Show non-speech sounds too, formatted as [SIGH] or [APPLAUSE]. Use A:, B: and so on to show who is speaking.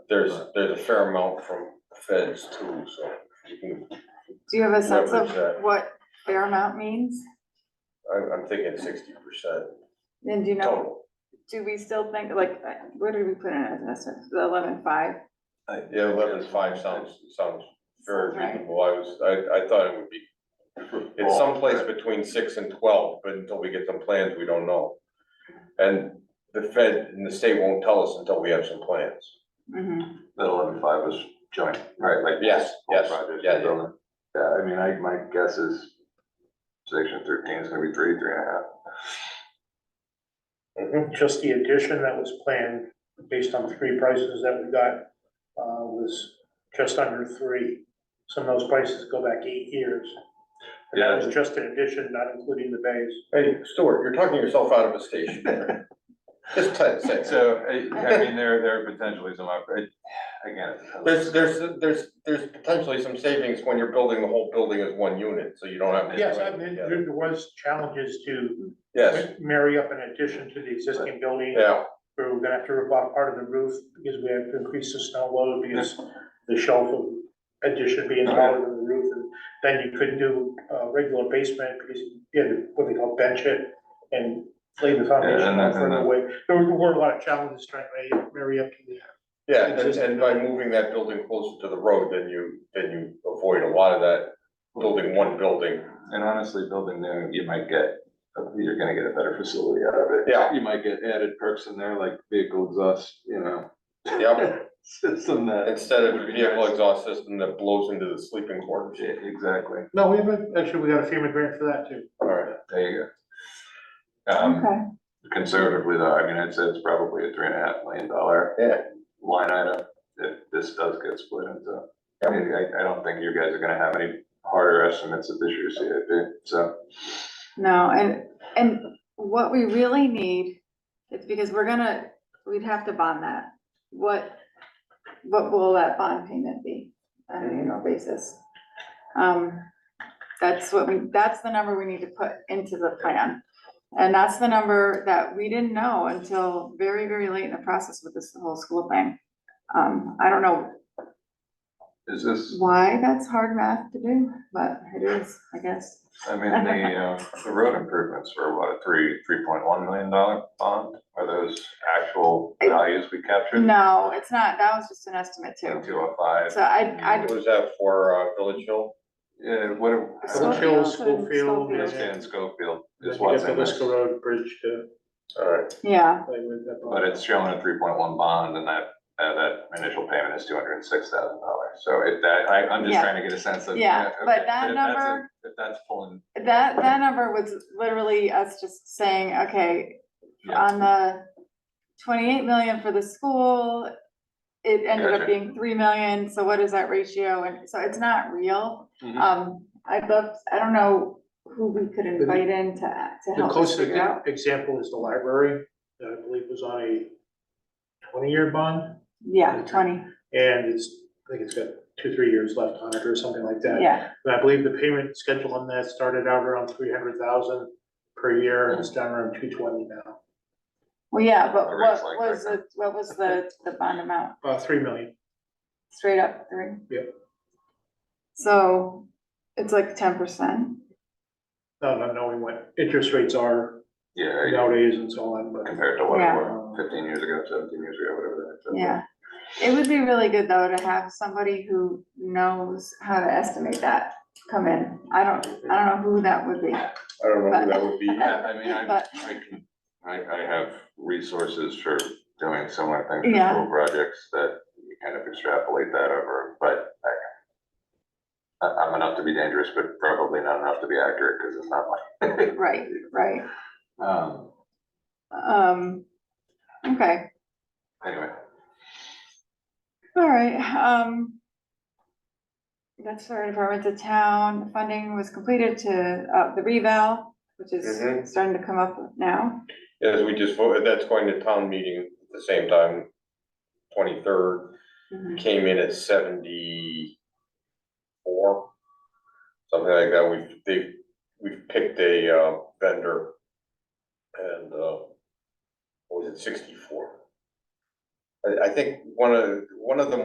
A: there's, there's a fair amount from feds too, so you can,
B: Do you have a sense of
A: Leverage that.
B: what fair amount means?
A: I'm, I'm thinking sixty percent
B: And do you know,
A: total.
B: do we still think, like, uh, where did we put in as an estimate, the eleven five?
A: Yeah, eleven five sounds, sounds very
B: Sounds right.
A: reasonable. I was, I, I thought it would be, it's someplace between six and twelve, but until we get some plans, we don't know. And the Fed and the state won't tell us until we have some plans.
B: Mm-hmm,
C: That eleven five was joint, right, like.
A: Yes,
C: both
A: yes,
C: projects
A: yeah,
C: were building. Yeah, I mean, I, my guess is section thirteen is gonna be three, three and a half.
D: Just the addition that was planned based on the three prices that we got, uh, was just under three. Some of those prices go back eight years. And that was just an addition, not including the bays.
A: Hey, Stuart, you're talking yourself out of a station. [LAUGHS] Just ten seconds.
E: So, I, I
C: [LAUGHS]
E: mean, there, there are potentially some, oppor- again.
A: There's, there's, there's, there's potentially some savings when you're building the whole building as one unit, so you don't have. to-
D: Yes, I mean, there there was challenges to
A: Yes,
D: marry up an addition to the existing building.
A: yeah,
D: We We're gonna have to rip off part of the roof because we have to increase the snow load because the shelf of addition being taller than the roof. and Then you couldn't do a regular basement because you had to, what they call bench it and lay the foundation
E: and
D: out
E: the-
D: further
E: and the-
D: away. There were- were a lot of challenges trying to marry- marry up to the.
A: yeah, and, and by moving that building closer to the road, then you, then you avoid a lot of that building one building.
C: And honestly, building new, you might get, you're gonna get a better facility out of it.
A: Yeah.
C: You might get added perks in there like vehicle exhaust, you know,
A: Yep,
C: system that.
A: instead of a vehicle exhaust system that blows into the sleeping quarters.
C: Yeah, Exactly,
D: No, we haven't, actually, we got a FEMA grant for that too.
A: All right,
C: there you go. Um,
B: okay,
C: conservatively though, I mean, I'd say it's probably a three and a half million dollar
A: Yeah.
C: line item if this does get split into. I mean, I, I don't think you guys are gonna have any harder estimates of this year's CIP, so.
B: no, and, and what we really need, it's because we're gonna, we'd have to bond that. What, what will that bond payment be on an annual basis? Um, that's what we, that's the number we need to put into the plan. And that's the number that we didn't know until very, very late in the process with this whole school thing. Um, I don't know
C: Is this,
B: why that's hard math to do, but it is, I guess.
C: I mean,
B: [LAUGHS]
C: the, uh, the road improvements were what, a three, three point one million dollar bond? Are those actual values we captured?
B: No, it's not, that was just an estimate too.
C: Two oh five,
B: So I,
A: what was that for, uh, Village Hill?
C: yeah, what,
B: I.
D: Schofield, Schofield, yeah.
C: that's in Schofield, is
D: You
C: what's
D: got
C: in
D: the
C: this,
D: Liska Road Bridge to
A: All right,
B: Yeah,
D: play with. that bond.
C: but it's showing a three point one bond and that, uh, that initial payment is two hundred and six thousand dollars. So it, that, I, I'm just
B: Yeah.
C: trying to get a sense of.
B: Yeah,
C: okay,
B: but that
C: if that's a-
B: number-
C: If that's pulling,
B: that, that number was literally us just saying, okay,
C: Yeah.
B: on the twenty-eight million for the school, it ended up
C: Gotcha.
B: being three million, so what is that ratio? And so it's not real.
C: Mhm.
B: Um, I'd love, I don't know who we could invite in to, to
D: The
B: help us figure out.
D: closest example is the library, that I believe was on a twenty-year bond,
B: Yeah, twenty,
D: and it's, I think it's got two, three years left on it or something like that.
B: yeah,
D: But I believe the payment schedule on that started out around three hundred thousand per year, and it's down around two twenty now,
B: well, yeah, but
C: The
B: what
C: rate's like
B: was
C: right
B: the, what was the, the bond amount?
D: uh, three million.
B: Straight up three?
D: Yep.
B: So it's like ten percent.
D: No, not knowing what interest rates are
C: yeah, yeah,
D: nowadays and so on, but.
C: compared to what it
B: Yeah.
C: was fifteen years ago, seventeen years ago, whatever that.
B: Yeah, it would be really good though to have somebody who knows how to estimate that come in. I don't, I don't know who that would be.
A: I don't know who that would be.
C: Yeah, I mean, I,
B: But-
C: I can, I, I have resources for doing similar things for
B: Yeah.
C: school projects that you kind of extrapolate that over, but I. I, am enough to be dangerous, but probably not enough to be accurate, because it's not mine.
B: Right, right.
C: Um,
B: Um, okay,
C: anyway,
B: all right, um. That's for department to town. Funding was completed to, uh, the revale, which
A: Mhm.
B: is starting to come up now.
A: As we just voted, that's going to town meeting at the same time, twenty-third. came in at seventy-four, something like that. We've, they, we've picked a uh, vendor. And, uh, what was it, sixty-four? I, I think one of, one of them